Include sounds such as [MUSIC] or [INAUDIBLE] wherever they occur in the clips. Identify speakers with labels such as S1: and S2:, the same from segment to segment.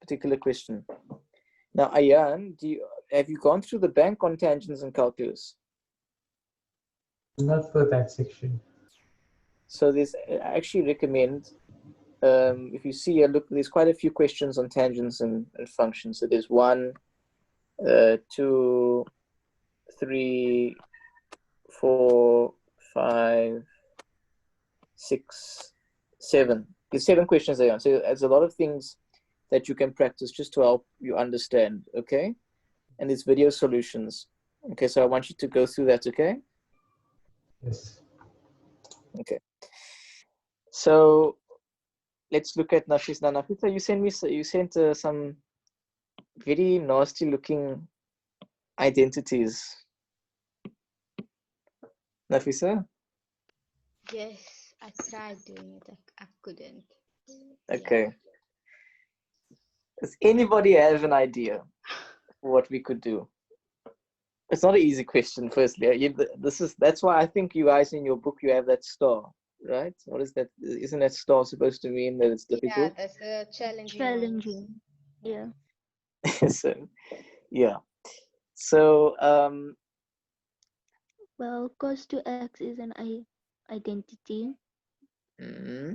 S1: particular question. Now, Ayan, do you, have you gone through the bank on tangents and calculus?
S2: Not for that section.
S1: So there's I actually recommend um, if you see a look, there's quite a few questions on tangents and, and functions. So there's one, uh, two, three, four, five, six, seven. There's seven questions there. So there's a lot of things that you can practice just to help you understand. Okay, and there's video solutions. Okay, so I want you to go through that. Okay.
S2: Yes.
S1: So let's look at Nafis Nanafita. You sent me s- you sent uh, some very nasty looking identities. Nafisa,
S3: Yes, I tried doing it. I, I couldn't. Yeah.
S1: okay. Does anybody have an idea what we could do? It's not an easy question. Firstly, You- this is that's why I think you guys in your book you have that star, right? What is that? Isn't that star supposed to mean that it's
S3: Yeah,
S1: difficult?
S3: that's a challenging. one.
S4: Challenging. Yeah.
S1: [LAUGHS] so, yeah. So um,
S4: Well, cos 2x is an i- identity.
S1: hmm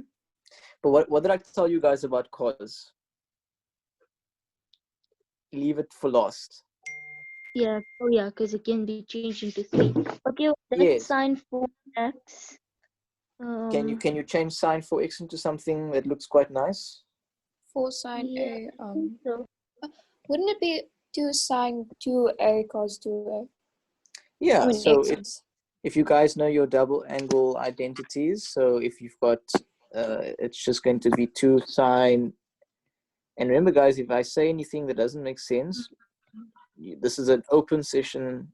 S1: But what, what did I tell you guys about cause? Leave it for last.
S4: Yeah. Oh, yeah, because it can be changed into 3. Okay, well, that's
S1: Yes.
S4: sign for x.
S1: Can you
S4: Um,
S1: can you change sign for x into something that looks quite nice?
S5: Four sine
S4: Yeah.
S5: a. Um,
S4: so-
S5: wouldn't it be two sine two a cos two a?
S1: Yeah.
S5: I mean,
S1: so
S5: makes
S1: it,
S5: sense.
S1: if you guys know your double angle identities, so if you've got, uh, it's just going to be two sine. And remember, guys, if I say anything that doesn't make sense, you- this is an open session.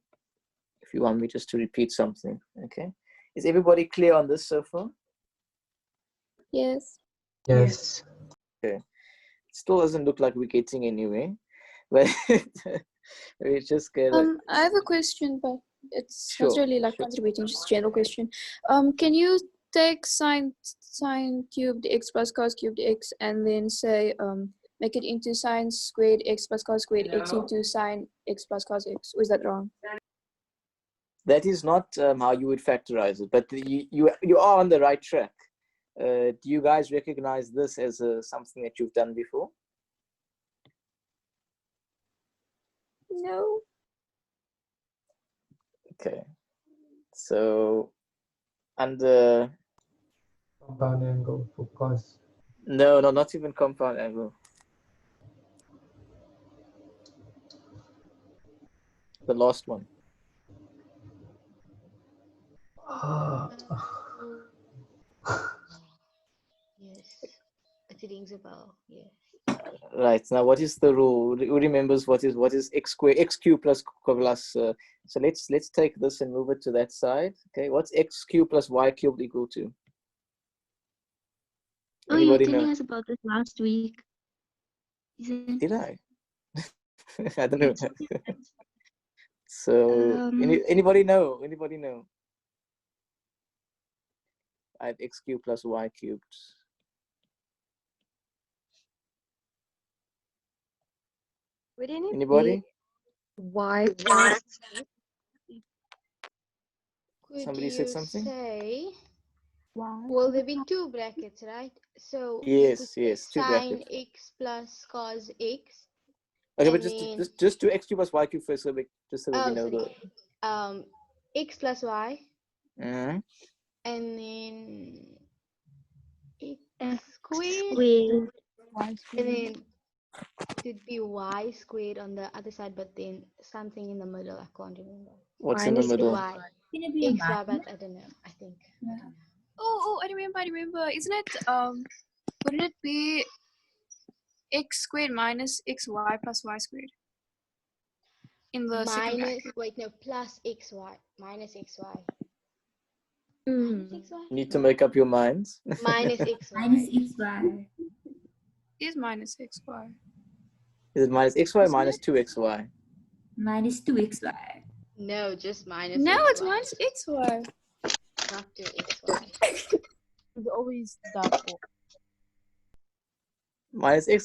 S1: If you want me just to repeat something, okay? Is everybody clear on this so far?
S5: yes.
S2: Yes.
S1: still doesn't look like we're getting anywhere. But [LAUGHS] we just get a-
S5: Um, I have a question, but it's not
S1: Sure,
S5: really like
S1: sure.
S5: contributing, just general question. Um, can you take sine sine cubed x plus cos cubed x and then say um make it into sine squared x plus cos squared x into sine x plus cos x? Or is that wrong?
S1: that is not um, how you would factorize it, but you you you are on the right track. Uh, do you guys recognize this as uh something that you've done before?
S5: No.
S1: Okay, so under
S2: Compound angle for cos.
S1: no, no, not even compound angle. The last one.
S2: Ah,
S3: Yes. It rings a bell. Yes.
S1: Right now, what is the rule? Re- Who remembers what is what is x square x cube plus q plus? Uh, so let's let's take this and move it to that side. Okay, what's x cube plus y cubed equal to?
S4: Oh, you were
S1: Anybody
S4: telling
S1: know?
S4: us about this last week. Isn't [LAUGHS]
S1: Did I? [LAUGHS] I don't know.
S4: It's okay, that's-
S1: So any,
S4: Um,
S1: anybody know? Anybody know? I have x cubed plus y cubed.
S6: Wouldn't it
S1: Anybody?
S6: be Y?
S3: Could
S1: Somebody said
S3: you
S1: something?
S3: Say,
S4: Wow.
S3: well, there be two brackets, right? So you could
S1: Yes, yes. Two
S3: sine
S1: brackets.
S3: x plus cos x.
S1: Okay,
S3: I
S1: but just
S3: mean-
S1: just just do x cubed plus y cubed first, so we, just so that we
S3: Oh,
S1: know the.
S3: sorry. Um, x plus y,
S1: Mhm.
S3: and then x
S4: X
S3: squared,
S4: Squared.
S3: and then it would be y squared on the other side, but then something in the middle. I can't remember.
S1: What's in the
S6: Minus
S1: middle?
S3: Y. X, Y, but I don't know. I think.
S5: Oh, oh, I remember, I remember. Isn't it, um, wouldn't it be x squared minus xy plus y squared? In the
S3: Minus,
S5: second bracket.
S3: wait, no, plus xy, minus xy.
S4: Mm.
S3: Minus xy?
S1: Need to make up your minds. [LAUGHS]
S3: Minus xy.
S5: E.
S7: Minus x y.
S5: Is minus xy.
S1: Is it minus xy or
S5: Isn't
S1: minus 2xy?
S7: Minus 2xy.
S3: No, just minus.
S5: No, it's
S3: XY,
S5: minus xy.
S3: Not two xy.
S1: Minus xy